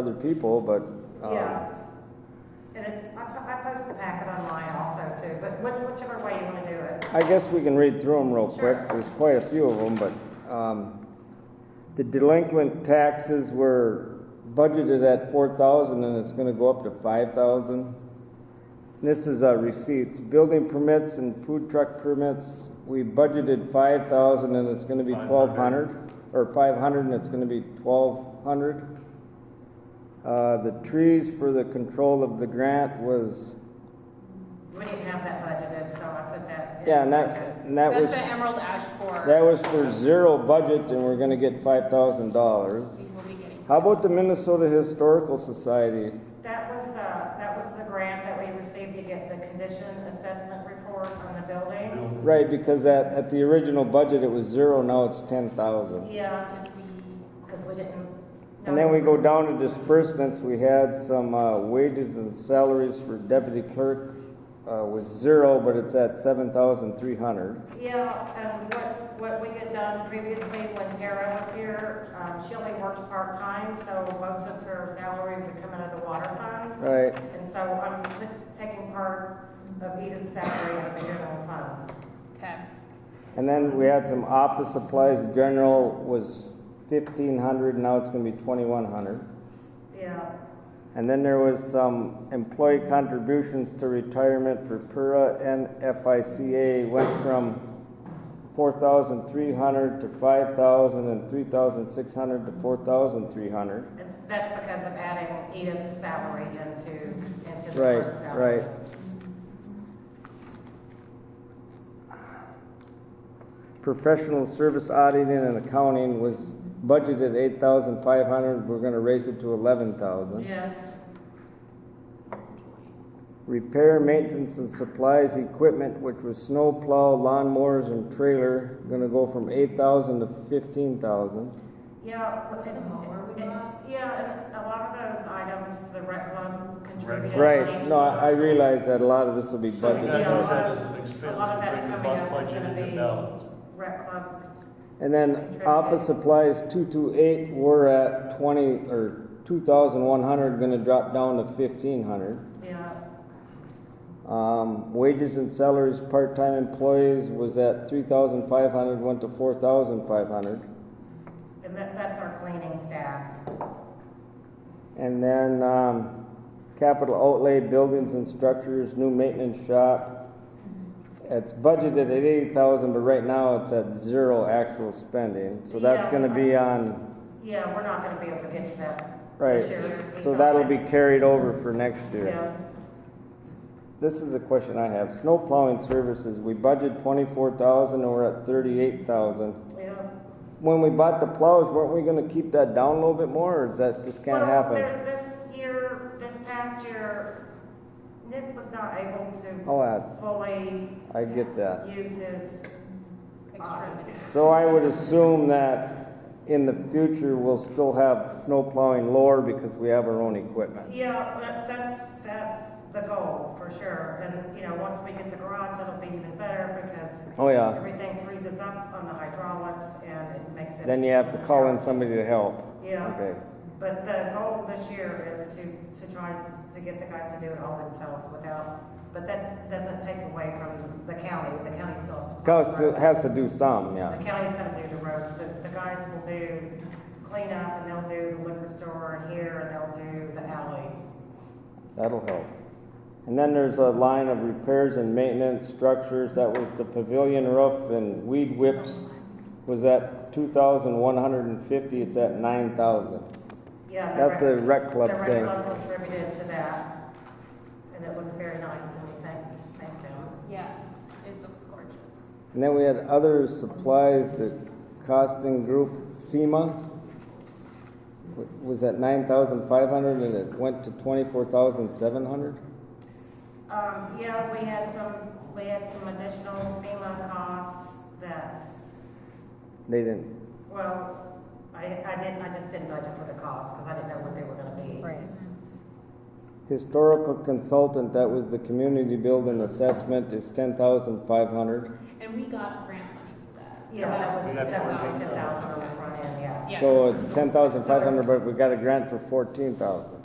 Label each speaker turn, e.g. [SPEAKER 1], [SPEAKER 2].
[SPEAKER 1] other people, but, um,
[SPEAKER 2] Yeah. And it's, I, po- I post the packet online also too, but which, whichever way you wanna do it.
[SPEAKER 1] I guess we can read through them real
[SPEAKER 2] Sure.
[SPEAKER 1] quick. There's quite a few of them, but, um, the delinquent taxes were budgeted at four thousand and it's gonna go up to five thousand. This is, uh, receipts, building permits and food truck permits, we budgeted five thousand and it's gonna be twelve hundred, or five hundred and it's gonna be twelve hundred. Uh, the trees for the control of the grant was,
[SPEAKER 2] We didn't have that budgeted, so I put that. in.
[SPEAKER 1] yeah, and that, and that was.
[SPEAKER 3] That's the Emerald Ash Borer.
[SPEAKER 1] That was for zero budget and we're gonna get five thousand dollars.
[SPEAKER 3] We will be getting.
[SPEAKER 1] How about the Minnesota Historical Society?
[SPEAKER 2] That was, uh, that was the grant that we received to get the condition assessment report on the building.
[SPEAKER 1] Right, because at, at the original budget, it was zero, now it's ten thousand.
[SPEAKER 2] Yeah,
[SPEAKER 3] Because we-
[SPEAKER 2] cause we didn't.
[SPEAKER 1] And then we go down to disbursements, we had some, uh, wages and salaries for deputy clerk, uh, was zero, but it's at seven thousand three hundred.
[SPEAKER 2] Yeah, and what, what we had done previously when Tara was here, um, she only worked part-time, so most of her salary would come out of the water fund.
[SPEAKER 1] Right,
[SPEAKER 2] And so I'm taking part of Edith's salary out of the general fund.
[SPEAKER 3] Okay.
[SPEAKER 1] and then we had some office supplies, general was fifteen hundred, now it's gonna be twenty-one hundred.
[SPEAKER 2] Yeah,
[SPEAKER 1] And then there was some employee contributions to retirement for PURA and FICA went from four thousand three hundred to five thousand and three thousand six hundred to four thousand three hundred.
[SPEAKER 2] and that's because of adding Edith's salary into, into the
[SPEAKER 1] Right,
[SPEAKER 2] clerk's salary.
[SPEAKER 1] right. Professional service auditing and accounting was budgeted eight thousand five hundred, we're gonna raise it to eleven thousand.
[SPEAKER 2] Yes,
[SPEAKER 1] Repair, maintenance, and supplies, equipment, which was snow plow, lawnmowers, and trailer, gonna go from eight thousand to fifteen thousand.
[SPEAKER 2] yeah. but-
[SPEAKER 3] The mower we bought?
[SPEAKER 2] Yeah, and a lot of those items, the rec club contributed.
[SPEAKER 1] Right,
[SPEAKER 2] money
[SPEAKER 1] no, I I
[SPEAKER 2] towards.
[SPEAKER 1] realize that a lot of this will be
[SPEAKER 4] So we
[SPEAKER 1] budgeted.
[SPEAKER 4] got
[SPEAKER 2] Yeah.
[SPEAKER 4] those that as an expense,
[SPEAKER 2] A lot of that's
[SPEAKER 4] bring the
[SPEAKER 2] coming
[SPEAKER 4] bu-
[SPEAKER 2] up. It's
[SPEAKER 4] budget
[SPEAKER 2] gonna
[SPEAKER 4] into
[SPEAKER 2] be-
[SPEAKER 4] balance.
[SPEAKER 2] Rec club
[SPEAKER 1] And then office supplies, two-two-eight, we're at twenty, or two thousand one hundred, gonna drop down to fifteen hundred.
[SPEAKER 2] Yeah,
[SPEAKER 1] Um, wages and salaries, part-time employees was at three thousand five hundred, went to four thousand five hundred.
[SPEAKER 2] and that, that's our cleaning staff.
[SPEAKER 1] And then, um, capital outlay, buildings and structures, new maintenance shop. It's budgeted at eighty thousand, but right now it's at zero actual spending, so that's
[SPEAKER 2] Yeah.
[SPEAKER 1] gonna be on,
[SPEAKER 2] Yeah, we're not gonna be able to get to that
[SPEAKER 1] right.
[SPEAKER 2] this year.
[SPEAKER 1] So that'll be carried over for next year.
[SPEAKER 2] Yeah,
[SPEAKER 1] This is a question I have, snow plowing services, we budgeted twenty-four thousand and we're at thirty-eight thousand.
[SPEAKER 2] yeah.
[SPEAKER 1] When we bought the plows, weren't we gonna keep that down a little bit more, or is that just can't
[SPEAKER 2] Well,
[SPEAKER 1] happen?
[SPEAKER 2] there- This year, this past year, Nick was not able to
[SPEAKER 1] Oh, I,
[SPEAKER 2] fully
[SPEAKER 1] I get that.
[SPEAKER 2] use his, uh,
[SPEAKER 3] Extremities.
[SPEAKER 1] So I would assume that in the future, we'll still have snow plowing lower because we have our own equipment.
[SPEAKER 2] yeah, that, that's, that's the goal for sure. And, you know, once we get the garage, it'll be even better because
[SPEAKER 1] Oh, yeah.
[SPEAKER 2] everything freezes up on the hydraulics and it makes it.
[SPEAKER 1] Then you have to call in somebody to help.
[SPEAKER 2] Yeah.
[SPEAKER 1] Okay.
[SPEAKER 2] But the goal this year is to, to try to get the guys to do it all themselves without, but that doesn't take away from the county, the county still has to.
[SPEAKER 1] Cause it has to do some, yeah.
[SPEAKER 2] The county's gonna do the roads, the, the guys will do cleanup, and they'll do the liquor store and here, and they'll do the alleys.
[SPEAKER 1] That'll help. And then there's a line of repairs and maintenance structures. That was the pavilion roof and weed whips was at two thousand one hundred and fifty. It's at nine thousand.
[SPEAKER 2] Yeah. the
[SPEAKER 1] That's a
[SPEAKER 2] rec-
[SPEAKER 1] rec club
[SPEAKER 2] The rec
[SPEAKER 1] thing.
[SPEAKER 2] club contributed to that, and it looks very nice, and we thank, thank them.
[SPEAKER 3] Yes, it looks gorgeous.
[SPEAKER 1] And then we had other supplies, the costing group FEMA wa- was at nine thousand five hundred and it went to twenty-four thousand seven hundred?
[SPEAKER 2] Um, yeah, we had some, we had some additional FEMA costs that
[SPEAKER 1] They didn't,
[SPEAKER 2] Well, I, I didn't, I just didn't budget for the cost, because I didn't know what they were gonna be. Right.
[SPEAKER 1] historical consultant, that was the community building assessment, is ten thousand five hundred.
[SPEAKER 3] And we got grant money for that.
[SPEAKER 2] Yeah, that was,
[SPEAKER 4] We got
[SPEAKER 2] that was
[SPEAKER 4] forty
[SPEAKER 2] ten
[SPEAKER 4] thousand.
[SPEAKER 2] thousand on the front end, yes.
[SPEAKER 3] Yes.
[SPEAKER 1] So it's ten thousand five hundred, but we got a grant for fourteen thousand.